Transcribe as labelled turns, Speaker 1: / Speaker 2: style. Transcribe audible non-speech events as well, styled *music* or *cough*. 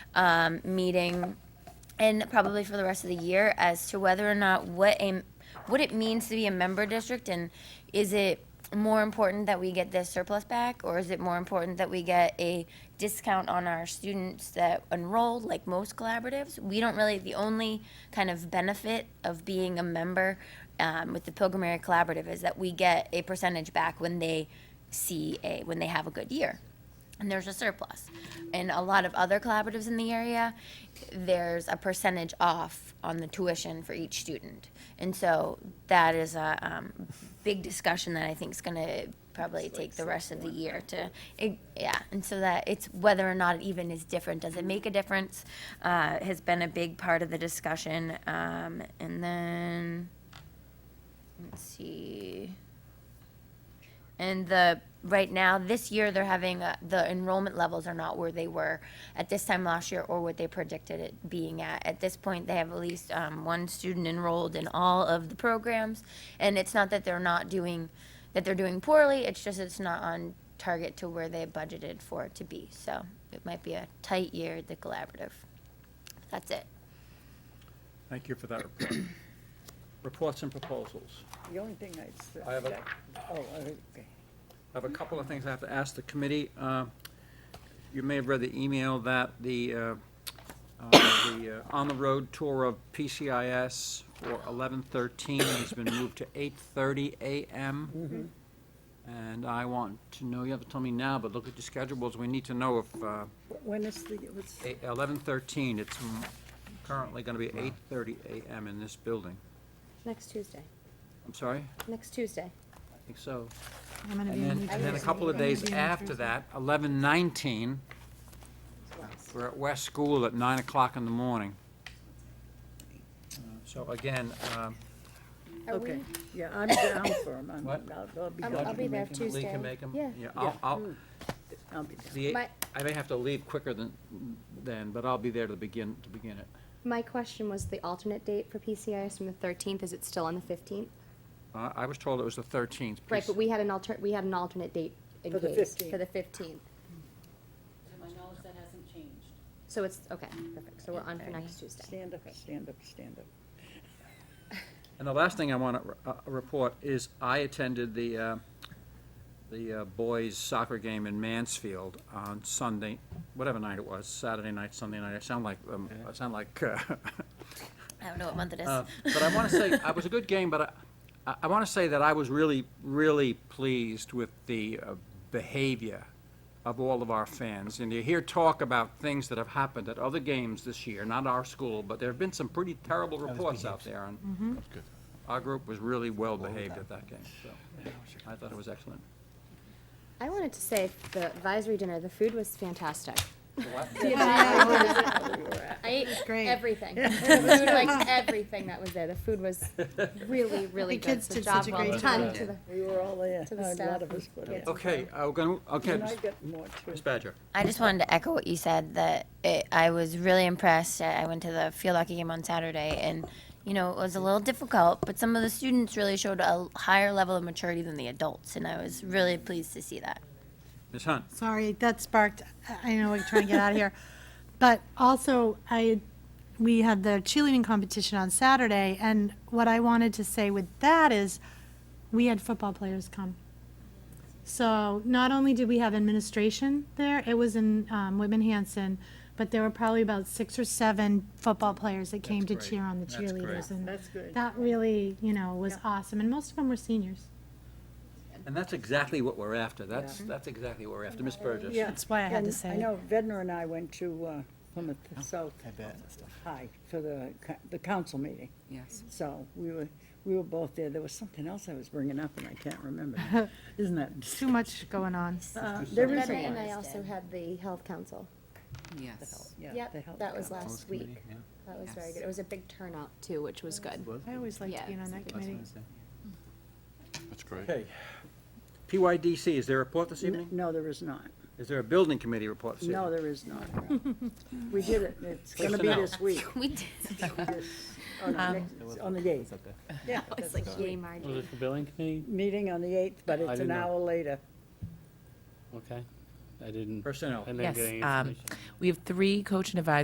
Speaker 1: um, meeting and probably for the rest of the year as to whether or not what a what it means to be a member district and is it more important that we get this surplus back or is it more important that we get a discount on our students that enroll like most collaboratives we don't really the only kind of benefit of being a member um, with the pilgrim area collaborative is that we get a percentage back when they see a when they have a good year and there's a surplus. In a lot of other collaboratives in the area, there's a percentage off on the tuition for each student. And so that is a um, big discussion that I think is going to probably take the rest of the year to, it, yeah. And so that it's whether or not it even is different. Does it make a difference? Uh, has been a big part of the discussion. Um, and then, let's see. And the, right now, this year, they're having, uh, the enrollment levels are not where they were at this time last year or what they predicted it being at. At this point, they have at least um, one student enrolled in all of the programs. And it's not that they're not doing, that they're doing poorly, it's just it's not on target to where they budgeted for it to be. So it might be a tight year at the collaborative. That's it.
Speaker 2: Thank you for that report. Reports and proposals.
Speaker 3: The only thing I'd say.
Speaker 2: I have a-
Speaker 3: Oh, okay.
Speaker 2: I have a couple of things I have to ask the committee. Uh, You may have read the email that the, uh, uh, the uh, on-the-road tour of PCIS for 11:13 has been moved to 8:30 a.m. And I want to know, you have to tell me now, but look at your schedules, we need to know if uh,
Speaker 3: When is the, what's,
Speaker 2: eight- 11:13, it's m- currently going to be 8:30 a.m. in this building.
Speaker 4: Next Tuesday.
Speaker 2: I'm sorry?
Speaker 4: Next Tuesday.
Speaker 2: I think so.
Speaker 5: I'm gonna
Speaker 2: And
Speaker 5: be in
Speaker 2: then,
Speaker 5: New
Speaker 2: and then a
Speaker 5: Jersey.
Speaker 2: couple of
Speaker 5: I'm gonna
Speaker 2: days
Speaker 5: be in New
Speaker 2: after
Speaker 5: Jersey.
Speaker 2: that, eleven nineteen, we're at West School at nine o'clock in the morning. Uh, So again, um,
Speaker 4: Are we,
Speaker 3: okay, yeah, I'm down for a month.
Speaker 2: What?
Speaker 3: I'll I'll be
Speaker 4: I'll-
Speaker 3: down. Hmm.
Speaker 4: I'll be there
Speaker 2: Lee
Speaker 4: Tuesday.
Speaker 2: can make 'em.
Speaker 4: Yeah.
Speaker 2: Yeah, I'll, I'll,
Speaker 3: I'll be down.
Speaker 2: the,
Speaker 4: My-
Speaker 2: I may have to leave quicker than, then, but I'll be there to begin, to begin it.
Speaker 4: my question was the alternate date for PCIS from the thirteenth, is it still on the fifteenth?
Speaker 2: Uh, I was told it was the thirteenth.
Speaker 4: Right, but we had an alter, we had an alternate date in
Speaker 3: For the
Speaker 4: case,
Speaker 3: 15th.
Speaker 4: for the fifteenth.
Speaker 6: To my knowledge, that hasn't changed.
Speaker 4: So it's, okay, perfect, so we're on for next Tuesday.
Speaker 3: Stand up, stand up, stand
Speaker 4: *laughs*
Speaker 3: up.
Speaker 2: And the last thing I want to report is I attended the, uh, the uh, boys soccer game in Mansfield on Sunday, whatever night it was, Saturday night, Sunday night. I sound like, um, I sound like, uh,
Speaker 1: I don't know what month it is.
Speaker 2: uh, *laughs* but I want to say, it was a good game, but I, I want to say that I was really, really pleased with the uh, behavior of all of our fans. And you hear talk about things that have happened at other games this year, not our school, but there have been some pretty terrible reports out there on our group was really well behaved at that game, so I thought it was excellent.
Speaker 4: I wanted to say, the advisory dinner, the food was fantastic. I ate *laughs*
Speaker 5: great.
Speaker 4: everything. The food, *laughs* like, everything that was there, the food was really, really
Speaker 5: The
Speaker 4: good.
Speaker 5: kids
Speaker 4: So
Speaker 5: did
Speaker 4: job
Speaker 5: such a
Speaker 4: well
Speaker 5: great
Speaker 4: done
Speaker 5: job.
Speaker 4: to the-
Speaker 3: We were all there,
Speaker 4: To the
Speaker 3: a lot
Speaker 4: staff
Speaker 3: of us were there.
Speaker 2: Okay, I'm gonna, Oh, okay,
Speaker 3: And I
Speaker 2: Ms.
Speaker 3: got more too.
Speaker 2: Ms. Badger.
Speaker 1: I just wanted to echo what you said that it, I was really impressed. I I went to the field hockey game on Saturday, and you know it was a little difficult, but some of the students really showed a higher level of maturity than the adults, and I was really pleased to see that.
Speaker 2: Ms. Hunt.
Speaker 5: Sorry, that sparked, I- I know we're trying to get out of *laughs* here. But also, I, we had the cheerleading competition on Saturday, and what I wanted to say with that is, we had football players come. So not only did we have administration there, it was in um, Whitman Hanson, but there were probably about six or seven football players that came to
Speaker 2: great.
Speaker 5: cheer on the
Speaker 2: That's great.
Speaker 5: cheerleaders. and
Speaker 3: That's good.
Speaker 5: That really, you know, was awesome, and most of them were seniors.
Speaker 2: And that's exactly what we're after, that's, that's exactly what we're after, Ms. Burgess.
Speaker 3: Yeah.
Speaker 5: That's why I had
Speaker 3: And
Speaker 5: to say Oh,
Speaker 3: I
Speaker 5: it.
Speaker 3: know Vedner and I went to uh, Plymouth South
Speaker 7: I bet.
Speaker 3: High for the, co- the council meeting.
Speaker 8: Yes.
Speaker 3: So we were, we were both there. There was something else I was bringing up and I can't remember. now. Isn't that?
Speaker 5: Too much going on.
Speaker 3: Uh, There is
Speaker 4: Better
Speaker 3: a
Speaker 4: and
Speaker 3: one.
Speaker 4: I also had the health council.
Speaker 8: Yes.
Speaker 3: Yeah, the
Speaker 4: Yep,
Speaker 3: health
Speaker 4: that was
Speaker 3: council.
Speaker 4: last week. That was very
Speaker 8: Yes.
Speaker 4: good. It was a big turnout too, which was good.
Speaker 5: I always like
Speaker 4: Yeah,
Speaker 5: being on that committee.
Speaker 7: That's great.
Speaker 2: Okay. PYDC, is there a report this
Speaker 3: N-
Speaker 2: evening?
Speaker 3: No, there is not.
Speaker 2: Is there a building committee report this evening?
Speaker 3: No, there is not.
Speaker 4: *laughs*
Speaker 3: We did it. It's gonna be
Speaker 2: Personnel. *laughs*
Speaker 3: this week.
Speaker 1: We did.
Speaker 3: This- On the next- on the eighth. Yeah,
Speaker 4: It's like, yay, Margie.
Speaker 9: Was it for billing committee?
Speaker 3: meeting on the eighth, but it's
Speaker 9: didn't
Speaker 3: an
Speaker 9: know.
Speaker 3: hour later.
Speaker 9: Okay. I didn't,
Speaker 2: Personnel.
Speaker 9: I didn't
Speaker 8: Yes,
Speaker 9: get any
Speaker 8: um,
Speaker 9: information.
Speaker 8: We have three coach and advisor